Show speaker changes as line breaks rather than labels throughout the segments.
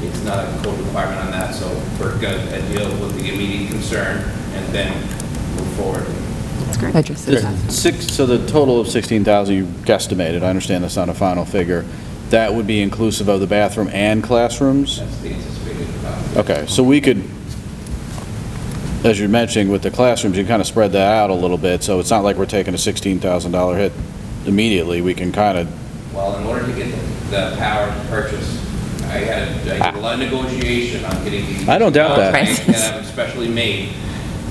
There's not a code requirement on that, so we're going to deal with the immediate concern and then move forward.
That's great.
addresses that.
Six, so the total of 16,000 you guesstimated, I understand that's not a final figure, that would be inclusive of the bathroom and classrooms?
That's the anticipated. uh,
Okay, so we could, as you're mentioning with the classrooms, you kind of spread that out a little bit, so it's not like we're taking a $16,000 hit immediately, we can kind of,
Well, in order to get the power to purchase, I had, I did a lot of negotiation on getting these.
I don't doubt that.
contracts That I've specially made.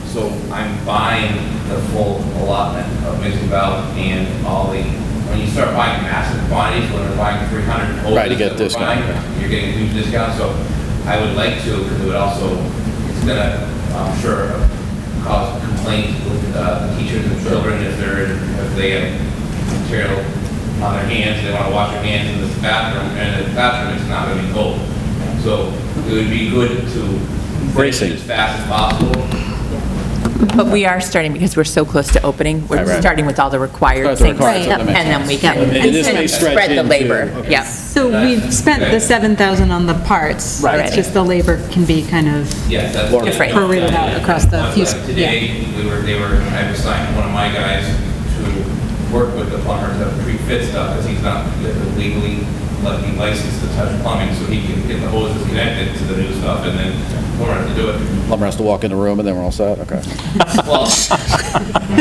So I'm buying the full allotment of Mixon Valley and all the, when you start buying massive quantities, when we're buying 300
Right, to
ovens that
get
we're
discount.
buying, You're getting a huge discount, so I would like to, because it would also, it's gonna, I'm sure, cause complaints with uh, teachers and children if they're, if they have material on their hands, they wanna wash their hands in this bathroom, and the bathroom is not gonna be cold. So it would be good to finish
Bracing.
it as fast as possible,
But we are starting, because we're so close to opening,
Right,
we're
right.
starting with all the required
That's
things.
required,
And
so that makes
then we
sense.
can
Yeah.
And this
sort
may
of
stretch
spread the
into-
labor.
okay.
Yeah.
So we've spent the 7,000 on the parts.
Right.
Right.
It's just the labor can be kind of,
Yes, that's. Uh,
Or-
Different.
Prorated out across the few-
Like Today, we were, they were, I assigned one of my guys to work with the plumber to pre-fit stuff, because he's not legally, like, licensed to touch plumbing, so he can get the hoses connected to the new stuff, and then plumber has to do it.
plumber has to walk in the room and then we're all set, okay.
Well,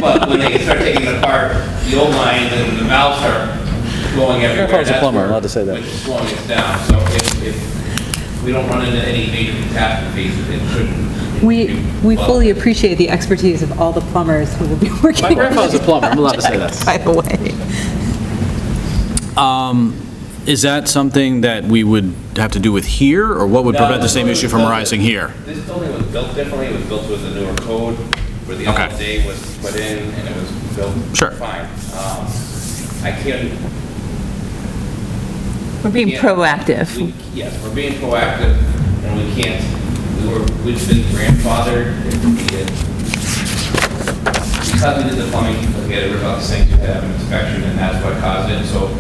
but when they start taking it apart, the old line, and the valves are going everywhere.
Grandpa's a
that's
plumber,
where-
allowed to say that.
Which is slowing us down, so if, if we don't run into any major catastrophes, it shouldn't.
we, we
Well,
fully appreciate the expertise of all the plumbers who will be working.
My grandfather's a plumber, I'm allowed to say that.
By the way.
Is that something that we would have to do with here, or what would
No,
prevent the
this
same
building
issue from
was built-
arising here?
This building was built differently, it was built with a newer code, where the
Okay.
LD was put in, and it was built
Sure.
fine. Um, I can't,
We're being proactive.
we- Yes, we're being proactive, and we can't, we were, we've been grandfathered, and we did- because we did the plumbing, we had to rip out the sinks, we had to have an inspection, and that's what caused it, so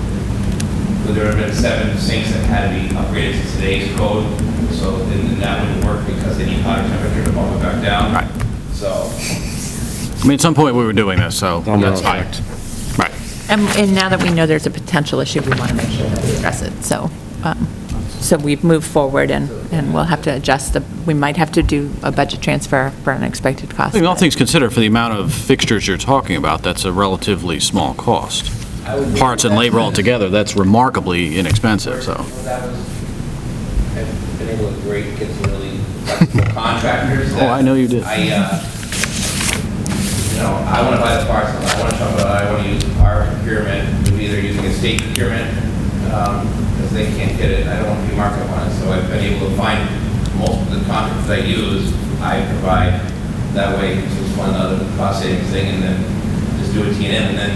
there have been seven sinks that had to be upgraded to today's code, so then that wouldn't work because they need hotter temperature to pump it back down.
Right.
So,
I mean, at some point, we were doing this, so that's fine. Right.
And and now that we know there's a potential issue, we want to make sure that we address it. So, um, so we've moved forward and, and we'll have to adjust the, we might have to do a budget transfer for unexpected
I
costs.
think all things considered, for the amount of fixtures you're talking about, that's a relatively small cost.
I would-
Parts and labor altogether, that's remarkably inexpensive, so.
That was, I've been able to great, get some really flexible contractors.
Oh,
that
I know you did.
I, uh, you know, I want to buy the parts, I want to shop, it, I want to use our procurement, we're either using a state procurement, um, because they can't get it, I don't want to be markup on it, so I've been able to find most of the contracts I use, I provide, that way it's just one other cost savings thing, and then just do a T and M, and then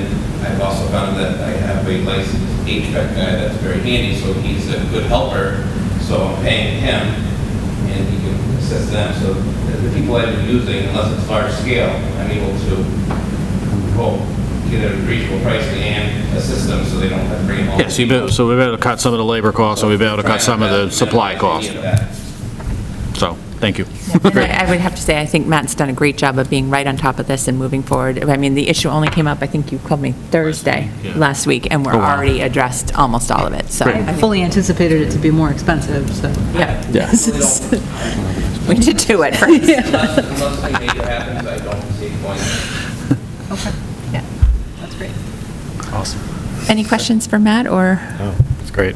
I've also found that I have a licensed HVAC guy that's very handy, so he's a good helper, so I'm paying him, and you can assess them. So the people I've been using, unless it's large scale, I'm able to, well, get a reasonable price and assist them so they don't have to bring them all.
Yeah, so you bet- so we've been able to cut some of the labor costs, and we've been able to cut some of the supply
cost.
costs, so, thank you.
And I I would have to say, I think Matt's done a great job of being right on top of this and moving forward. I mean, the issue only came up, I think you called me Thursday,
yeah.
last week, and we're
Oh, wow.
already addressed almost all of it, so.
I fully anticipated it to be more expensive, so.
Yeah,
Yeah.
we did do it first.
Unless, unless something major happens, I don't see a point.
Okay,
Yeah.
that's great.
Awesome.
Any questions for Matt, or?
Oh, it's great.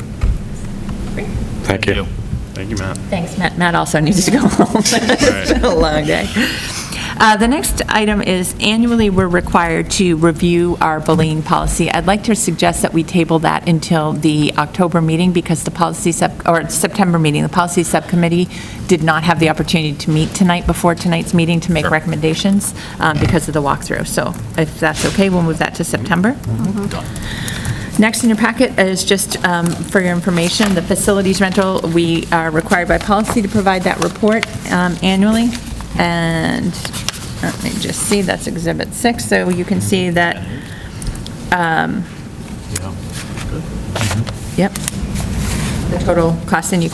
Thank you. Thank you, Matt.
Thanks, Matt. Matt also needs to go home. It's been a long day. Uh, The next item is annually, we're required to review our bullying policy. I'd like to suggest that we table that until the October meeting because the policy sub, or September meeting, the policy subcommittee did not have the opportunity to meet tonight before tonight's meeting to make recommendations um, because of the walkthrough. So if that's okay, we'll move that to September. Next in your packet is just um, for your information, the facilities rental, we are required by policy to provide that report um, annually, and let me just see, that's Exhibit 6, so you can see that, um, yep, the total cost, and you